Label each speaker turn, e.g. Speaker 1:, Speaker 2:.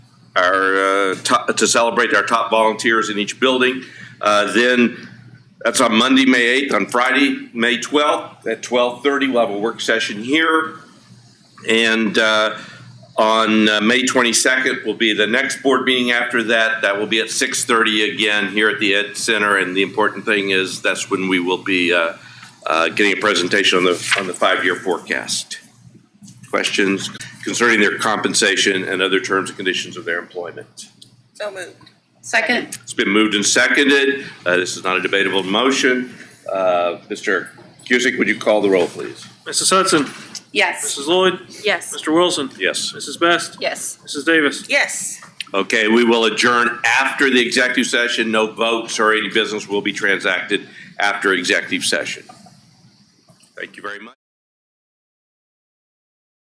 Speaker 1: our, uh, top, to celebrate our top volunteers in each building. Uh, Then, that's on Monday, May 8th, on Friday, May 12th, at 12:30, we'll have a work session here. And uh, on uh, May 22nd will be the next board meeting after that. That will be at 6:30 again here at the Ed Center. And the important thing is, that's when we will be uh, uh, getting a presentation on the, on the five-year forecast. Questions concerning their compensation and other terms and conditions of their employment.
Speaker 2: So moved.
Speaker 3: Second.
Speaker 1: It's been moved and seconded. Uh, This is not a debatable motion. Uh, Mr. Cusick, would you call the roll, please?
Speaker 4: Mrs. Hudson,
Speaker 3: Yes.
Speaker 4: Mrs. Lloyd,
Speaker 2: Yes.
Speaker 4: Mr. Wilson,
Speaker 1: Yes.
Speaker 4: Mrs. Best,
Speaker 3: Yes.
Speaker 4: Mrs. Davis.
Speaker 2: Yes.
Speaker 1: Okay, we will adjourn after the executive session. No votes or any business will be transacted after executive session. Thank you very much.